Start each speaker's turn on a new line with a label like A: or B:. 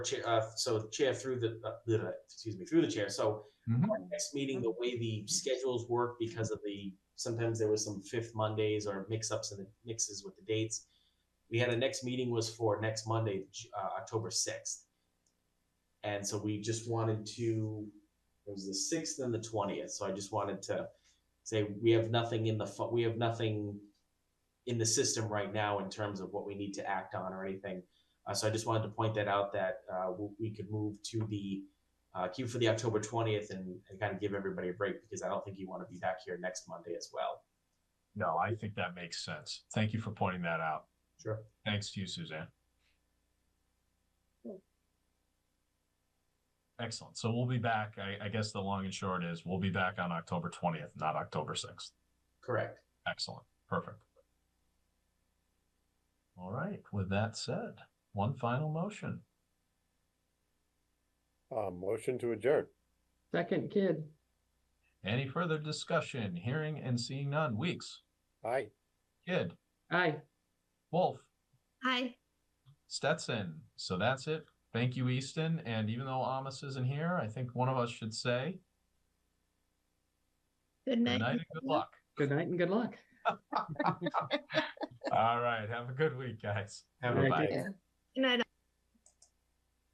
A: chair, uh, so the chair through the, uh, the- excuse me, through the chair. So
B: Mhm.
A: our next meeting, the way the schedules work because of the, sometimes there was some fifth Mondays or mix-ups and mixes with the dates. We had, a next meeting was for next Monday, J- uh, October sixth. And so we just wanted to, it was the sixth and the twentieth. So I just wanted to say, we have nothing in the, fu- we have nothing in the system right now in terms of what we need to act on or anything. Uh, so I just wanted to point that out that uh, w- we could move to the uh, queue for the October 20th and, and kind of give everybody a break because I don't think you want to be back here next Monday as well.
B: No, I think that makes sense. Thank you for pointing that out.
A: Sure.
B: Thanks to you, Suzanne. Excellent. So we'll be back. I, I guess the long and short is we'll be back on October twentieth, not October sixth.
A: Correct.
B: Excellent. Perfect. All right. With that said, one final motion.
C: Uh, motion to adjourn.
D: Second kid.
B: Any further discussion? Hearing and seeing none. Weeks,
C: Aye.
B: Kid,
D: Aye.
B: Wolf,
E: Hi.
B: Stetson. So that's it. Thank you, Easton. And even though Amos isn't here, I think one of us should say
E: Good
B: good
E: night.
B: night and good luck.
D: Good night and good luck.
B: All right. Have a good week, guys.
A: Have
D: All
A: a
D: right,
A: bye.
D: take care.
E: Good night,